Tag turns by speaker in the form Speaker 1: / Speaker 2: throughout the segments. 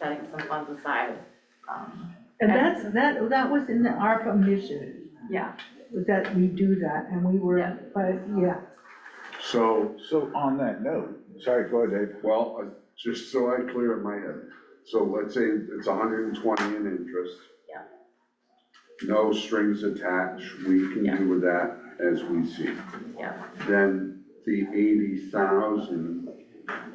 Speaker 1: some funds aside. um,
Speaker 2: And that's, that, that was in the ARPA mission,
Speaker 1: Yeah,
Speaker 2: was that we do that, and we
Speaker 1: Yeah.
Speaker 2: were, but, yeah.
Speaker 3: So,
Speaker 4: So,
Speaker 3: on that note, sorry, go ahead, Dave.
Speaker 4: well, uh, just so I clear in my head, so let's say it's hundred and twenty in interest.
Speaker 1: Yeah.
Speaker 4: No strings attached, we can
Speaker 1: Yeah.
Speaker 4: do with that as we see.
Speaker 1: Yeah.
Speaker 4: Then the eighty thousand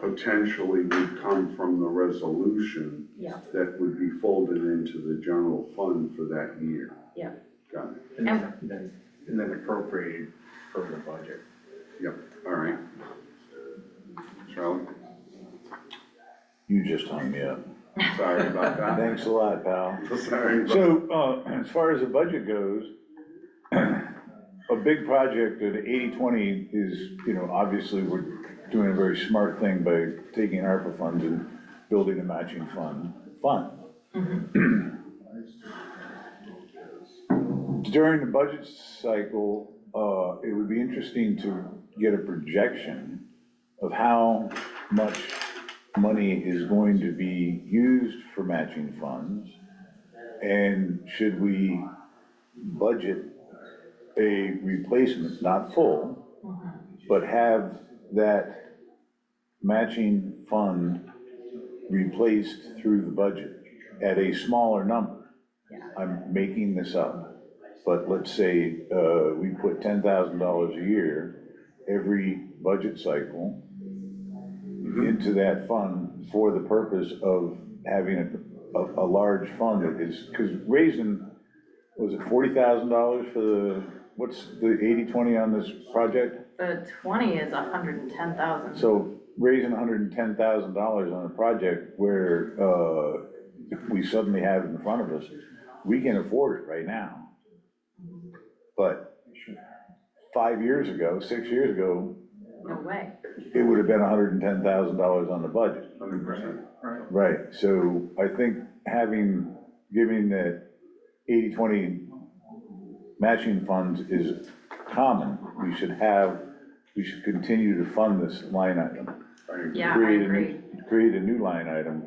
Speaker 4: potentially would come from the resolution.
Speaker 1: Yeah.
Speaker 4: That would be folded into the general fund for that year.
Speaker 1: Yeah.
Speaker 4: Got it,
Speaker 5: And then, then- and then appropriate from the budget.
Speaker 4: all right. Charlie,
Speaker 3: You just hung me up.
Speaker 4: sorry about that.
Speaker 3: Thanks a lot, pal.
Speaker 4: Sorry about
Speaker 3: So, uh, as far as the budget goes, a big project at eighty-twenty is, you know, obviously, we're doing a very smart thing by taking ARPA funds and building a matching fund, fund. During the budget cycle, uh, it would be interesting to get a projection of how much money is going to be used for matching funds. And should we budget a replacement, not full, but have that matching fund replaced through the budget at a smaller number? I'm making this up, but let's say, uh, we put ten thousand dollars a year every budget cycle into that fund for the purpose of having a, a, a large fund that is, because raising, was it forty thousand dollars for the, what's the eighty-twenty on this project?
Speaker 1: the twenty is a hundred and ten thousand,
Speaker 3: So raising hundred and ten thousand dollars on a project where, uh, we suddenly have in front of us, we can afford it right now. But five years ago, six years ago,
Speaker 1: no way.
Speaker 3: it would have been hundred and ten thousand dollars on the budget.
Speaker 4: Hundred percent.
Speaker 3: Right, so I think having, giving the 80-20 matching funds is common. We should have, we should continue to fund this line item.
Speaker 1: Yeah, I
Speaker 3: Create a new-
Speaker 1: agree.
Speaker 3: Create a new line item,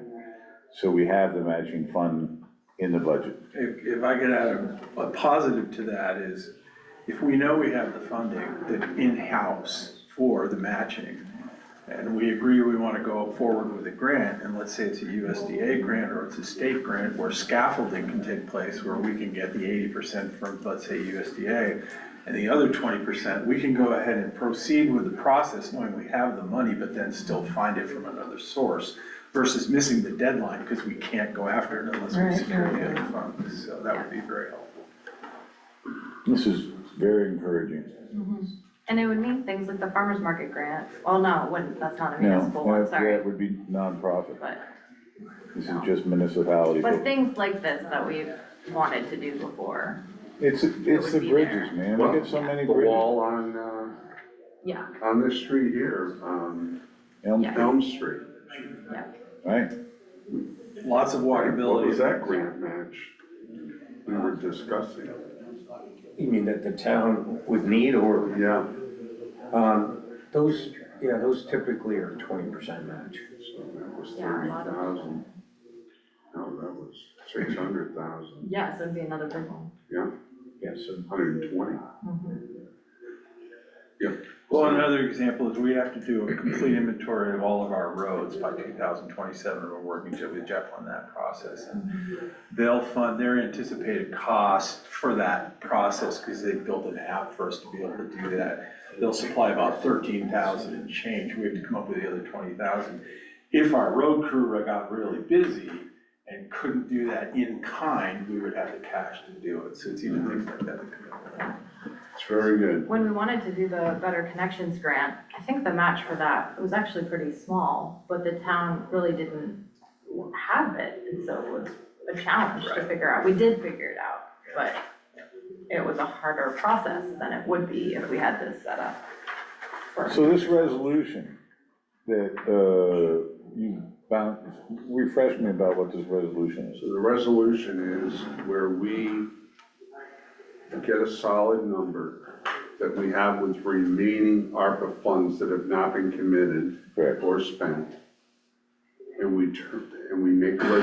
Speaker 3: so we have the matching fund in the budget.
Speaker 5: If, if I could add a, a positive to that is, if we know we have the funding, that in-house for the matching, and we agree we wanna go forward with a grant, and let's say it's a USDA grant or it's a state grant where scaffolding can take place, where we can get the eighty percent from, let's say, USDA, and the other twenty percent, we can go ahead and proceed with the process knowing we have the money, but then still find it from another source versus missing the deadline, because we can't go after it unless we
Speaker 2: Right,
Speaker 5: secure
Speaker 2: right,
Speaker 5: the
Speaker 2: right.
Speaker 5: other funds, so that would be very helpful.
Speaker 3: This is very encouraging.
Speaker 1: And it would mean things like the farmer's market grant, well, no, it wouldn't, that's not a municipal
Speaker 3: Now,
Speaker 1: one,
Speaker 3: that-
Speaker 1: sorry,
Speaker 3: That would be nonprofit.
Speaker 1: but,
Speaker 3: This is just municipality.
Speaker 1: but things like this that we've wanted to do before,
Speaker 3: It's, it's
Speaker 1: would
Speaker 3: the
Speaker 1: be
Speaker 3: bridges, man. Look at so many
Speaker 4: The
Speaker 3: bridges.
Speaker 4: wall on, uh,
Speaker 1: yeah,
Speaker 4: on this street here, um,
Speaker 3: Elm,
Speaker 1: Yeah.
Speaker 4: Elm Street.
Speaker 3: right?
Speaker 5: Lots of
Speaker 4: What was
Speaker 5: walkability.
Speaker 4: that grant match we were discussing?
Speaker 6: You mean that the town would need or,
Speaker 4: Yeah,
Speaker 6: um, those, yeah, those typically are twenty percent match.
Speaker 4: so that was
Speaker 1: Yeah, a
Speaker 4: thirty
Speaker 1: lot of-
Speaker 4: thousand. No, that was six hundred thousand,
Speaker 1: yeah, so it'd be another big one.
Speaker 6: Yes, so
Speaker 4: hundred and twenty.
Speaker 1: Mhm.
Speaker 5: Well, another example is we have to do a complete inventory of all of our roads by two thousand twenty-seven, we're working to- with Jeff on that process. and They'll fund their anticipated cost for that process, because they built an app for us to be able to do that. They'll supply about thirteen thousand and change, we have to come up with the other twenty thousand. If our road crew got really busy and couldn't do that in kind, we would have the cash to do it, so it's even things like that that come up.
Speaker 4: It's very good.
Speaker 1: When we wanted to do the Better Connections grant, I think the match for that was actually pretty small, but the town really didn't have it, and so it was a challenge to figure out, we did figure it out, but it was a harder process than it would be if we had this set up. for-
Speaker 3: So this resolution that uh, you found, refresh me about what this resolution is.
Speaker 4: So the resolution is where we get a solid number that we have with remaining ARPA funds that have not been committed
Speaker 3: Correct.
Speaker 4: or spent. And we turn, and we make a resolution